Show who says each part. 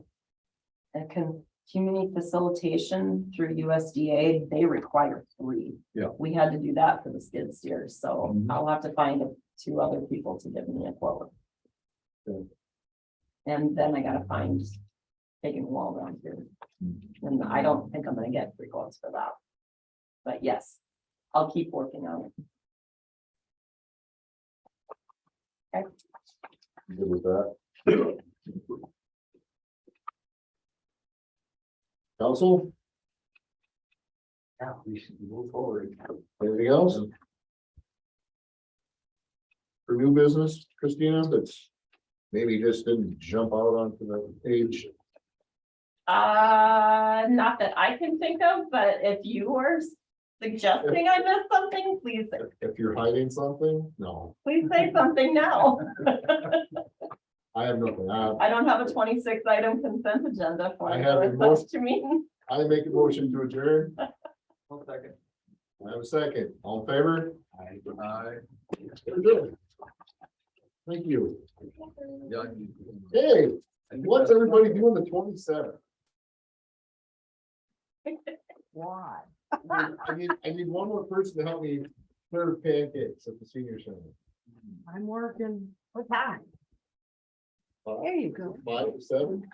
Speaker 1: a com- community facilitation through USDA, they require three.
Speaker 2: Yeah.
Speaker 1: We had to do that for the skid steer, so
Speaker 2: Mhm.
Speaker 1: I'll have to find two other people to give me a quote.
Speaker 2: Good.
Speaker 1: And then I gotta find taking wall around here,
Speaker 2: Mm-hmm.
Speaker 1: and I don't think I'm gonna get three quotes for that. But yes, I'll keep working on it.
Speaker 2: Good with that. Council? Yeah, we should move forward. Anything else? For new business, Christina, that's maybe just didn't jump out onto the page.
Speaker 1: Uh, not that I can think of, but if you were suggesting I missed something, please,
Speaker 2: If- If you're hiding something, no,
Speaker 1: please say something now.
Speaker 2: I have nothing. I,
Speaker 1: I don't have a twenty-six item consent agenda for
Speaker 2: I
Speaker 1: you.
Speaker 2: have a
Speaker 1: It's
Speaker 2: most-
Speaker 1: up to me.
Speaker 2: I make a motion to adjourn.
Speaker 3: One second.
Speaker 2: I have a second. All in favor?
Speaker 3: Aye.
Speaker 2: Thank you.
Speaker 3: Yeah.
Speaker 2: Hey, what's everybody doing the twenty seventh?
Speaker 1: Why?
Speaker 2: I need, I need one more person to help me serve pancakes at the senior center.
Speaker 4: I'm working. What time?
Speaker 2: Five,
Speaker 4: There you go.
Speaker 2: Five, seven?